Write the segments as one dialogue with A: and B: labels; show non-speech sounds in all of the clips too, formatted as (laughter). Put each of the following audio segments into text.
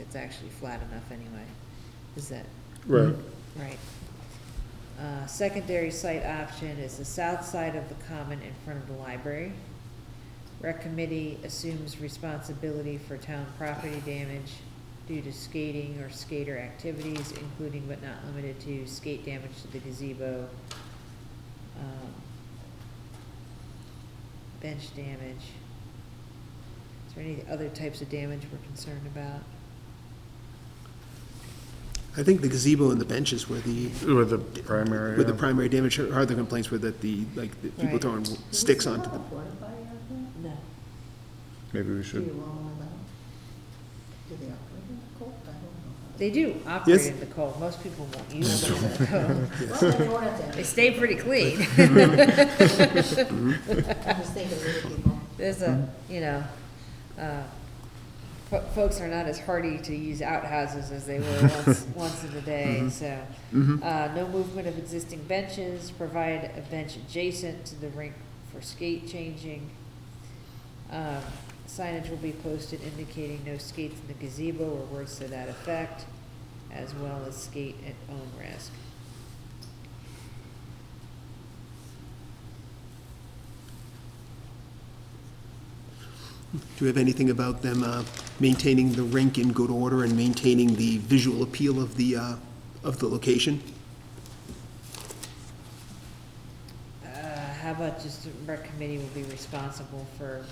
A: it's actually flat enough anyway. Is that
B: Right.
A: right? Uh, secondary site option is the south side of the common in front of the library. Rec committee assumes responsibility for town property damage due to skating or skater activities, including but not limited to skate damage to the gazebo, um, bench damage. Is there any other types of damage we're concerned about?
C: I think the gazebo and the benches were the,
B: Mm-hmm. With the primary.
C: were the
B: yeah.
C: primary damage, or the complaints were that the, like, the people
A: Right.
C: throwing sticks onto the,
A: No.
B: Maybe we
D: Do you
B: should,
D: all allow? Do they operate in the cold? I don't
A: They do operate
C: Yes.
A: in the cold. Most people won't use them in the cold.
D: (laughs) know. Well, they won't have
A: They
D: to.
A: stay pretty clean. (laughs)
D: I just think of little people.
A: There's a, you know, uh, fo- folks are not as hardy to use outhouses as they were once, once in the day, so. Uh, no movement of existing benches, provide a bench adjacent to the rink for skate changing. Um, Signage will be posted indicating no skates in the gazebo or words to that effect, as well as skate at own risk.
C: do we have anything about them uh, maintaining the rink in good order and maintaining the visual appeal of the, uh, of the location?
A: Uh, how about just the rec committee will be responsible for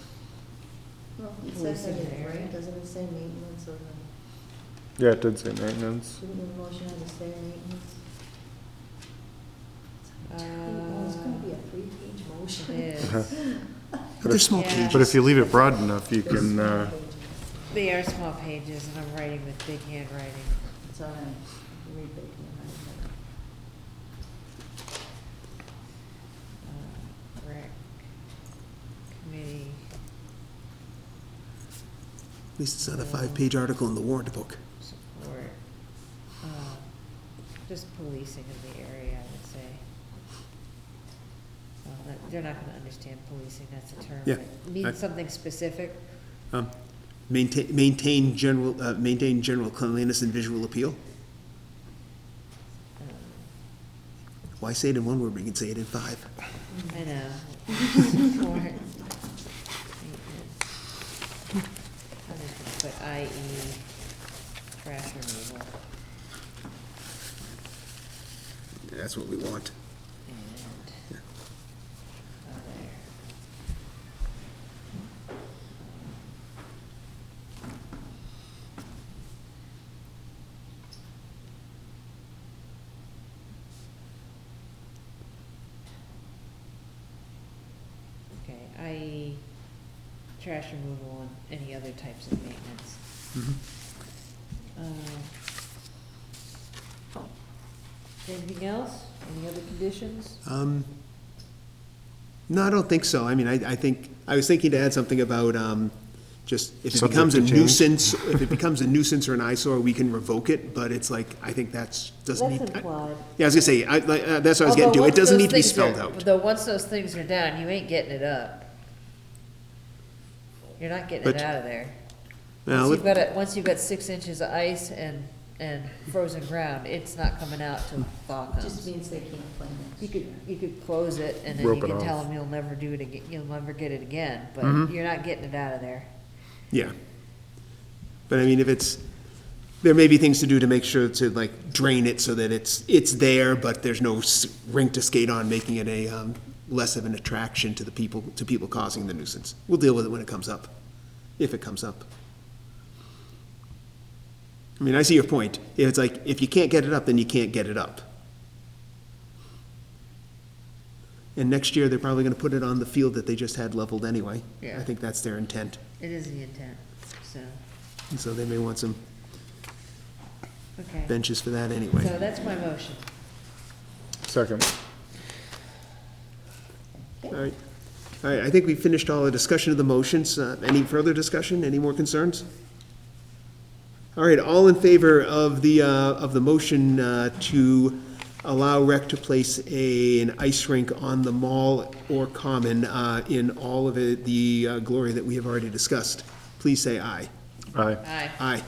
D: Well, it
A: Well,
D: says that
A: it's in
D: in
A: there,
D: it,
A: yeah.
D: right? Doesn't it say maintenance or, the-
B: yeah, it did say maintenance.
D: shouldn't the motion have to say maintenance?
A: Uh,
D: Well, it's gonna be a three-page motion.
A: is,
C: Uh-huh. But They're small
A: Yeah.
C: pages.
B: But if you leave it broad enough, you can, uh,
A: they are small pages, and I'm writing with big handwriting.
D: It's all right, You read big, you know,
A: Uh, Rec committee,
C: At least it's not a five-page article in the warrant book.
A: support, um, just policing of the area, I would say. Well, that- they're not gonna understand policing, that's a term.
C: Yeah,
A: but Means
C: I-
A: something specific,
C: Um, Maintain, maintain general, uh, maintain general cleanliness and visual appeal?
A: um,
C: Why say it in one word, we can say it in five?
A: I know. Support, maintenance. I'm just gonna put IE, E, trash removal.
C: That's what we want.
A: And other. Okay, i.e. trash removal and any other types of maintenance. Uh, Anything else? Any other conditions?
C: Um, No, I don't think so. I mean, I, I think, I was thinking to add something about, um, just, if it
B: Subject
C: becomes a
B: to change. (laughs)
C: nuisance, if it becomes a nuisance or an eyesore, we can revoke it, but it's like, I think that's, doesn't
A: That's
C: need. I-
A: implied.
C: Yeah, I was gonna say, I, like, uh, that's what I was getting
A: Although
C: to. It
A: once
C: doesn't
A: those
C: need to be
A: things are-
C: spelled out.
A: Though, once those things are down, you ain't getting it up. You're not getting it
C: But-
A: out of there. Once
C: Now, let-
A: you've got, a- once you've got six inches of ice and, and frozen ground, it's not coming out till thaw
D: It just
A: comes.
D: means they can't play
A: You
D: next
A: could,
D: year.
A: you could close it and then you
B: Rope it
A: can tell
B: off.
A: them you'll never do it again, you'll never get it again, but
C: Mhm.
A: you're not getting it out of there.
C: Yeah. But I mean, if it's, there may be things to do to make sure to like drain it so that it's, it's there, but there's no s- rink to skate on, making it a, um, less of an attraction to the people, to people causing the nuisance. We'll deal with it when it comes up, if it comes up. I mean, I see your point. If It's like, if you can't get it up, then you can't get it up. And next year, they're probably gonna put it on the field that they just had leveled anyway.
A: Yeah.
C: I think that's their intent.
A: It is the intent, so,
C: And so they may want some
A: okay.
C: benches for that
A: So
C: anyway.
A: that's my motion.
B: Second.
C: All right, all right, I think we finished all the discussion of the motions. Uh, Any further discussion, any more concerns? All right, all in favor of the, uh, of the motion uh, to allow rec to place a, an ice rink on the mall or common uh, in all of it- the uh, glory that we have already discussed, please say aye.
B: Aye.
A: Aye.
C: Aye.